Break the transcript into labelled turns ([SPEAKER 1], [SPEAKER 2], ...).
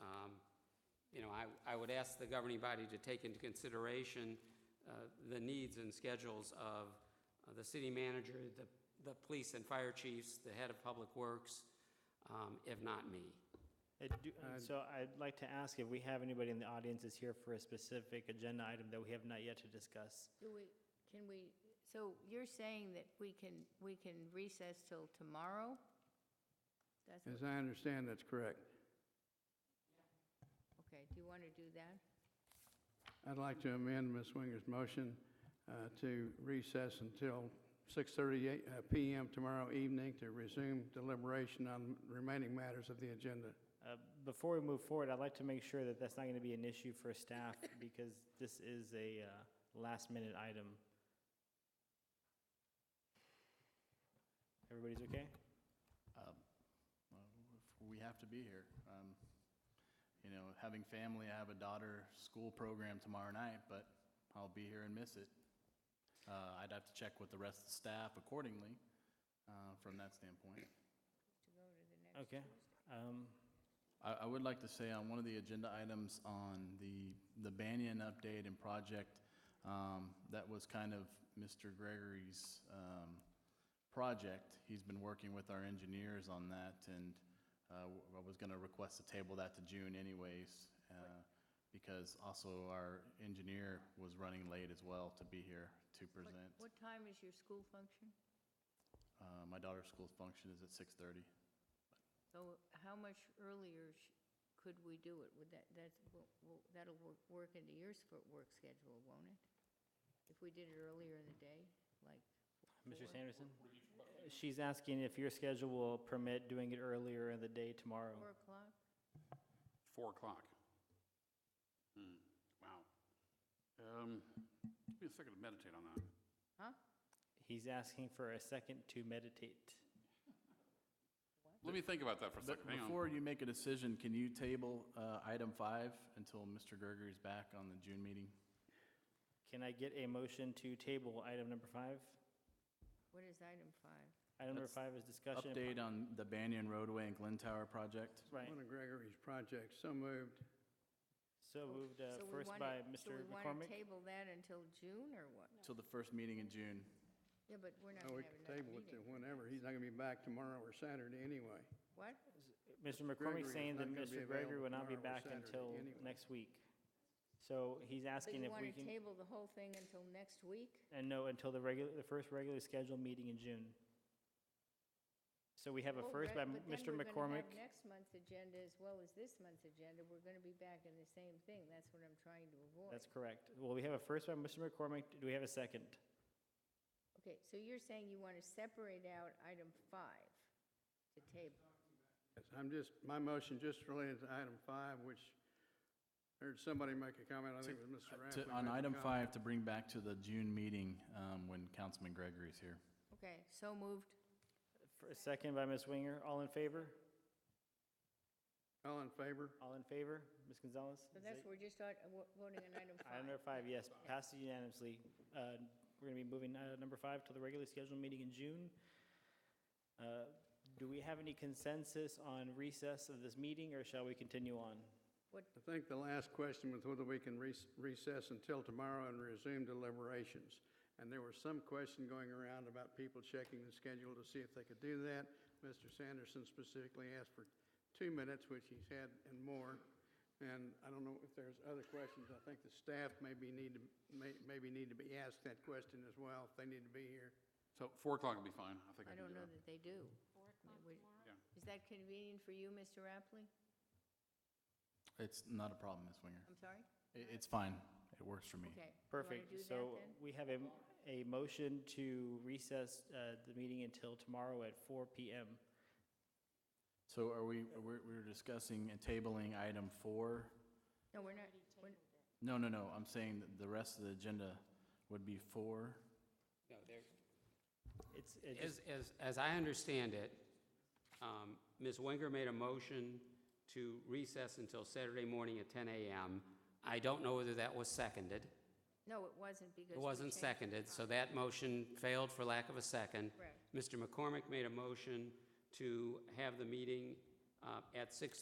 [SPEAKER 1] um, I would ask the governing body to take into consideration uh, the needs and schedules of uh, the city manager, the, the police and fire chiefs, the head of public works, um, if not me.
[SPEAKER 2] Uh, do- uh, So I'd like to ask if we have anybody in the audience that's here for a specific agenda item that we have not yet to discuss.
[SPEAKER 3] Do we, can we, so you're saying that we can, we can recess till tomorrow? That's,
[SPEAKER 4] As I understand, that's correct.
[SPEAKER 3] okay, do you want to do that?
[SPEAKER 4] I'd like to amend Ms. Winger's motion uh, to recess until 6:30 uh, PM tomorrow evening to resume deliberation on remaining matters of the agenda.
[SPEAKER 2] Uh, Before we move forward, I'd like to make sure that that's not going to be an issue for staff because this is a uh, last-minute item. Everybody's okay?
[SPEAKER 5] Well, if We have to be here. Um, You know, having family, I have a daughter school program tomorrow night, but I'll be here and miss it. Uh, I'd have to check with the rest of the staff accordingly uh, from that standpoint.
[SPEAKER 3] To go to the next?
[SPEAKER 2] Okay. Um,
[SPEAKER 5] I, I would like to say on one of the agenda items on the, the Banyan update and project, um, that was kind of Mr. Gregory's, um, project. He's been working with our engineers on that and, uh, I was gonna request to table that to June anyways, uh, because also our engineer was running late as well to be here to
[SPEAKER 3] What-
[SPEAKER 5] present.
[SPEAKER 3] What time is your school function?
[SPEAKER 5] Uh, my daughter's school function is at six thirty.
[SPEAKER 3] So how much earlier sh- could we do it? Would that, that's, will- will- that'll wor- work into your sp- work schedule, won't it? If we did it earlier in the day, like?
[SPEAKER 2] Mr.
[SPEAKER 3] four?
[SPEAKER 2] Sanderson? Uh, She's asking if your schedule will permit doing it earlier in the day
[SPEAKER 3] Four
[SPEAKER 2] tomorrow.
[SPEAKER 3] o'clock?
[SPEAKER 6] Four o'clock. Hmm, wow. Um, give me a second to meditate on that.
[SPEAKER 3] Huh?
[SPEAKER 2] He's asking for a second to meditate.
[SPEAKER 6] Let me think about that for a
[SPEAKER 5] But
[SPEAKER 6] second, hang on.
[SPEAKER 5] Before you make a decision, can you table uh, item five until Mr. Gregory's back on the June meeting?
[SPEAKER 2] Can I get a motion to table item number five?
[SPEAKER 3] What is item five?
[SPEAKER 2] Item number
[SPEAKER 5] That's
[SPEAKER 2] five is discussion. and po-
[SPEAKER 5] Update on the Banyan roadway and Glen Tower project?
[SPEAKER 2] Right,
[SPEAKER 4] One of Gregory's projects, so moved.
[SPEAKER 2] so moved uh,
[SPEAKER 3] So we
[SPEAKER 2] first
[SPEAKER 3] wanna-
[SPEAKER 2] by
[SPEAKER 3] so
[SPEAKER 2] Mr.
[SPEAKER 3] we want to
[SPEAKER 2] McCormick.
[SPEAKER 3] table that until June, or what?
[SPEAKER 5] Till the first meeting in June.
[SPEAKER 3] Yeah, but we're not
[SPEAKER 4] Oh, we
[SPEAKER 3] going to have
[SPEAKER 4] can
[SPEAKER 3] another
[SPEAKER 4] table it to
[SPEAKER 3] meeting.
[SPEAKER 4] whenever. He's not going to be back tomorrow or Saturday anyway.
[SPEAKER 3] What?
[SPEAKER 2] Mr.
[SPEAKER 4] Gregory
[SPEAKER 2] McCormick
[SPEAKER 4] is
[SPEAKER 2] saying that
[SPEAKER 4] not gonna be
[SPEAKER 2] Mr. Gregory
[SPEAKER 4] available
[SPEAKER 2] will not be
[SPEAKER 4] tomorrow or
[SPEAKER 2] back
[SPEAKER 4] Saturday
[SPEAKER 2] until
[SPEAKER 4] anyway.
[SPEAKER 2] next week. So he's
[SPEAKER 3] So
[SPEAKER 2] asking
[SPEAKER 3] you
[SPEAKER 2] if
[SPEAKER 3] want
[SPEAKER 2] we
[SPEAKER 3] to
[SPEAKER 2] can,
[SPEAKER 3] table the whole thing until next week?
[SPEAKER 2] and no, until the regular, the first regularly scheduled meeting in June. So we have a
[SPEAKER 3] Well,
[SPEAKER 2] first by
[SPEAKER 3] Oh, right, but then
[SPEAKER 2] Mr.
[SPEAKER 3] we're gonna have
[SPEAKER 2] McCormick.
[SPEAKER 3] Next month's agenda as well as this month's agenda, we're going to be back in the same thing. That's what I'm trying to avoid.
[SPEAKER 2] That's correct. Well, we have a first by Mr. McCormick. Do we have a second?
[SPEAKER 3] Okay, so you're saying you want to separate out item five to table.
[SPEAKER 4] Yes, I'm just, my motion just related to item five, which, heard somebody make a comment, I think it was Mr.
[SPEAKER 5] Uh, To-
[SPEAKER 4] Rathman.
[SPEAKER 5] On
[SPEAKER 4] made a
[SPEAKER 5] item
[SPEAKER 4] comment.
[SPEAKER 5] five, to bring back to the June meeting um, when Councilman Gregory's here.
[SPEAKER 3] Okay, so moved.
[SPEAKER 2] For a second by Ms. Winger. All in favor?
[SPEAKER 4] All in favor?
[SPEAKER 2] All in favor? Ms. Gonzalez?
[SPEAKER 3] So that's, we're just on- uh, voting on item
[SPEAKER 2] Item number five,
[SPEAKER 3] five.
[SPEAKER 2] yes, passes unanimously. Uh, We're going to be moving uh, number five to the regularly scheduled meeting in June. Uh, Do we have any consensus on recess of this meeting, or shall we continue on?
[SPEAKER 3] What,
[SPEAKER 4] I think the last question was whether we can res- recess until tomorrow and resume deliberations. And there was some question going around about people checking the schedule to see if they could do that. Mr. Sanderson specifically asked for two minutes, which he's had and more. And I don't know if there's other questions. I think the staff maybe need to, may- maybe need to be asked that question as well, if they need to be here.
[SPEAKER 6] So four o'clock will be fine, I think
[SPEAKER 3] I
[SPEAKER 6] I can
[SPEAKER 3] don't
[SPEAKER 6] do
[SPEAKER 3] know
[SPEAKER 6] that.
[SPEAKER 3] that they do. We-
[SPEAKER 6] Yeah.
[SPEAKER 3] Is that convenient for you, Mr. Rapley?
[SPEAKER 5] It's not a problem, Ms. Winger.
[SPEAKER 3] I'm sorry?
[SPEAKER 5] It- It's fine. It works for me.
[SPEAKER 3] Okay. You wanna do
[SPEAKER 2] Perfect.
[SPEAKER 3] that
[SPEAKER 2] So
[SPEAKER 3] then?
[SPEAKER 2] we have a, a motion to recess uh, the meeting until tomorrow at 4 PM.
[SPEAKER 5] So are we, we're we're discussing and tabling item four?
[SPEAKER 3] No, we're not, we're-
[SPEAKER 5] No, no, no, I'm saying that the rest of the agenda would be four.
[SPEAKER 1] No, there,
[SPEAKER 2] It's, it just-
[SPEAKER 1] As, as, as I understand it, um, Ms. Winger made a motion to recess until Saturday morning at 10 a.m. I don't know whether that was seconded.
[SPEAKER 3] no, it wasn't because.
[SPEAKER 1] It
[SPEAKER 3] we
[SPEAKER 1] wasn't
[SPEAKER 3] changed-
[SPEAKER 1] seconded, so that motion failed for lack of a second.
[SPEAKER 3] Correct.
[SPEAKER 1] Mr. McCormick made a motion to have the meeting uh, at 6:30